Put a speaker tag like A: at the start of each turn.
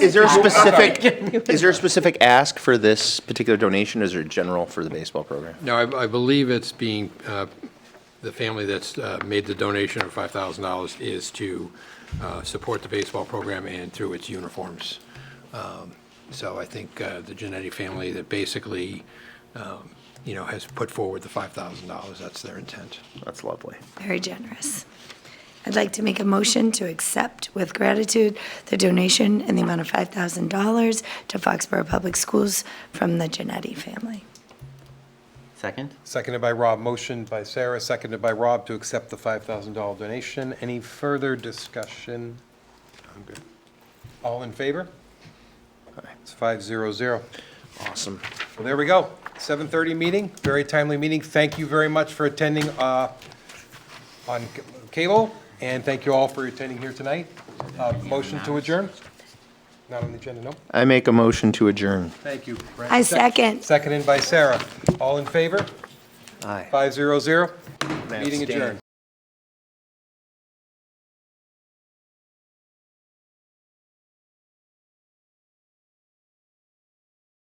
A: Is there a specific, is there a specific ask for this particular donation, or is there general for the baseball program?
B: No, I, I believe it's being, uh, the family that's uh, made the donation of $5,000 is to uh, support the baseball program and through its uniforms. Um, So I think uh, the Genetti family that basically, um, you know, has put forward the $5,000, that's their intent.
A: That's lovely.
C: Very generous. I'd like to make a motion to accept with gratitude the donation in the amount of $5,000 to Foxborough Public Schools from the Genetti family.
D: Second?
E: Seconded by Rob, motion by Sarah, seconded by Rob to accept the $5,000 donation. Any further discussion? I'm good. All in favor? It's 500. Well,
A: Awesome.
E: there we go. 7:30 meeting, very timely meeting. Thank you very much for attending uh, on c- cable, and thank you all for attending here tonight. Uh, Motion to adjourn? Not on the agenda, no?
A: I make a motion to adjourn.
E: Thank you. Brent.
C: I second.
E: Seconded by Sarah. All in favor?
A: Aye.
E: 500. Meeting adjourned.